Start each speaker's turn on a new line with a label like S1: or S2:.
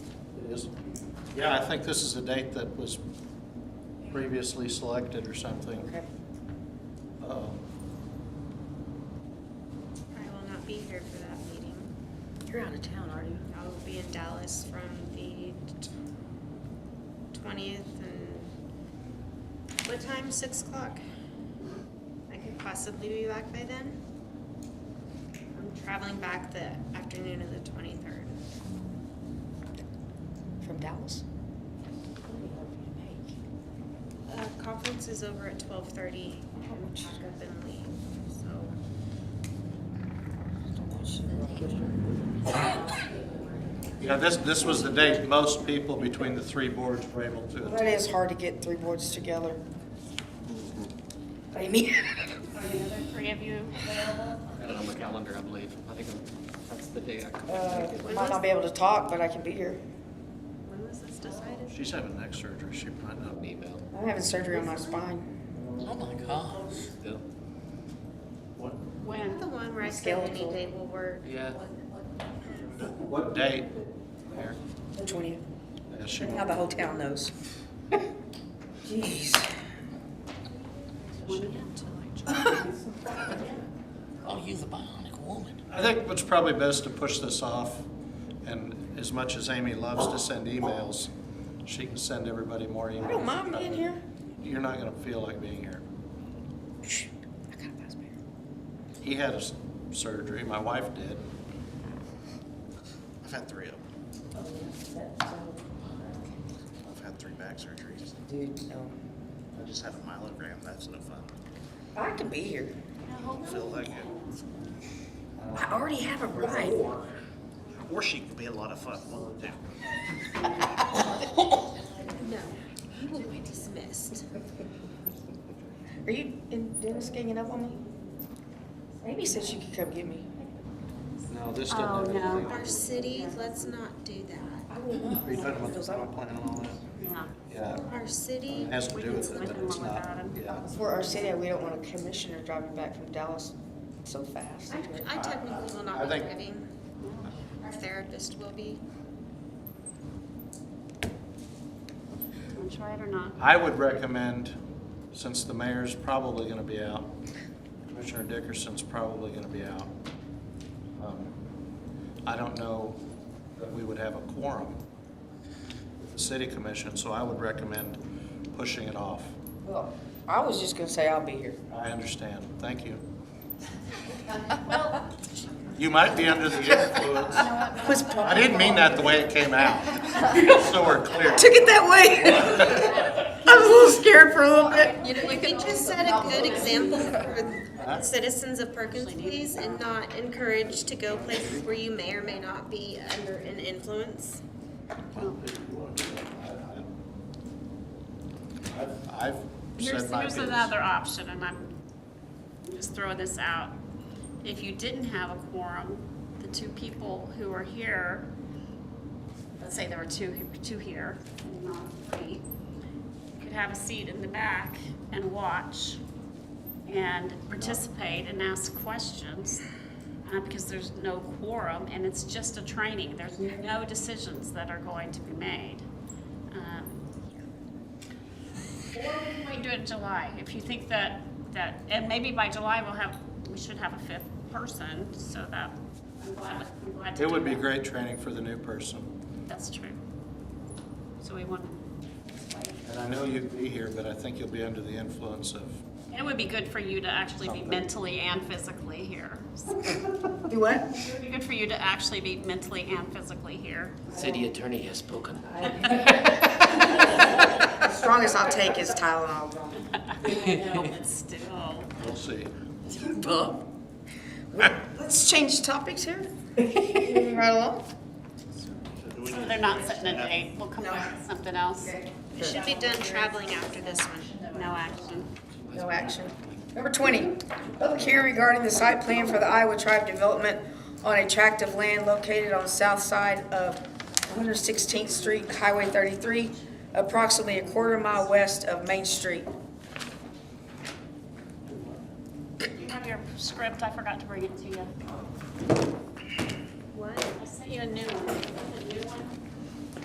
S1: is, yeah, I think this is a date that was previously selected or something.
S2: Okay.
S1: Um,
S3: I will not be here for that meeting.
S2: You're out of town, are you?
S3: I will be in Dallas from the twentieth and what time? Six o'clock. I could possibly be back by then. I'm traveling back the afternoon of the twenty-third.
S2: From Dallas?
S3: Uh, conference is over at twelve thirty. Pack up and leave, so.
S1: Yeah, this, this was the date most people between the three boards were able to
S2: That is hard to get three boards together. Amy?
S3: Three of you.
S4: And on the calendar, I believe. I think that's the day I come
S2: Uh,
S4: back. to
S2: I
S4: the-
S2: might not be able to talk, but I can be here.
S3: When was this decided?
S1: She's having neck surgery, she might not
S4: An
S1: be.
S4: email.
S2: I'm having surgery on my spine.
S4: Oh my gosh. Still.
S1: What,
S3: When? The one where I said any
S2: Skeletal.
S3: date will work.
S4: Yeah.
S1: what date?
S2: The twentieth.
S1: Yeah, she,
S2: Now the whole town knows. Jeez.
S5: Oh, you're the bionic woman.
S1: I think it's probably best to push this off, and as much as Amy loves to send emails, she can send everybody more emails.
S2: I don't mind being here.
S1: You're not gonna feel like being here.
S2: Shh, I gotta pass by.
S1: He had a s- surgery, my wife did. I've had three of them.
S6: I've had three back surgeries.
S2: Dude, no.
S6: I just had a myelogram. That's no fun.
S2: I can be here.
S6: Feel like it.
S2: I already have a ride.
S6: Or she could be a lot of fun. One of the two.
S3: No, you will be dismissed.
S2: Are you in Dennis ganging up on me? Amy said she could come get me.
S1: No, this didn't have anything.
S3: Our city, let's not do that.
S1: Are you talking about the final plan and all that? Yeah.
S3: Our city.
S1: Yeah, it has to do with it, but it's not, yeah.
S2: For our city, we don't want a commissioner driving back from Dallas so fast.
S3: I I technically will not
S1: I
S3: be
S1: think-
S3: driving. Our therapist will be.
S7: Want to try it or not?
S1: I would recommend, since the mayor's probably gonna be out, Commissioner Dickerson's probably gonna be out. um, I don't know that we would have a quorum, with the city commission, so I would recommend pushing it off.
S2: Well, I was just gonna say I'll be here.
S1: I understand, thank you. You might be under the influence.
S2: Was
S1: I
S2: to
S1: didn't mean that the way it came out, so we're clear.
S2: Took it that way. I was a little scared for a little bit.
S3: You know, you could just set a good example for citizens of Perkins, please, and not encourage to go places where you may or may not be under an influence.
S1: I've- I've
S7: Here's,
S1: said my
S7: here's
S1: piece.
S7: another option, and I'm just throwing this out. If you didn't have a quorum, the two people who are here, let's say there were two, two here, and not three, could have a seat in the back and watch and participate and ask questions, uh, because there's no quorum, and it's just a training. There's no decisions that are going to be made. Um, or we might do it in July, if you think that, that, and maybe by July we'll have, we should have a fifth person, so that, I'm glad, I'm glad to
S1: It would
S7: do
S1: be
S7: that.
S1: great training for the new person.
S7: That's true. So we want,
S1: And I know you'd be here, but I think you'll be under the influence of,
S7: and it would be good for you to actually be mentally and physically here. So
S2: Do what?
S7: It would be good for you to actually be mentally and physically here.
S5: City attorney has spoken.
S2: The strongest I'll take is Tylenol.
S7: No, but still.
S1: we'll see.
S2: Let's change topics here. Moving Right along.
S7: So they're not setting a date, we'll come up with something else.
S3: It should be done traveling after this one.
S7: No action.
S2: No action. Number 20, public hearing regarding the site plan for the Iowa Tribe Development on a tract of land located on the south side of 116th Street, Highway 33, approximately a quarter mile west of Main Street.
S7: You have your script, I forgot to bring it to you.
S3: What?
S7: I sent you a new one. A new one?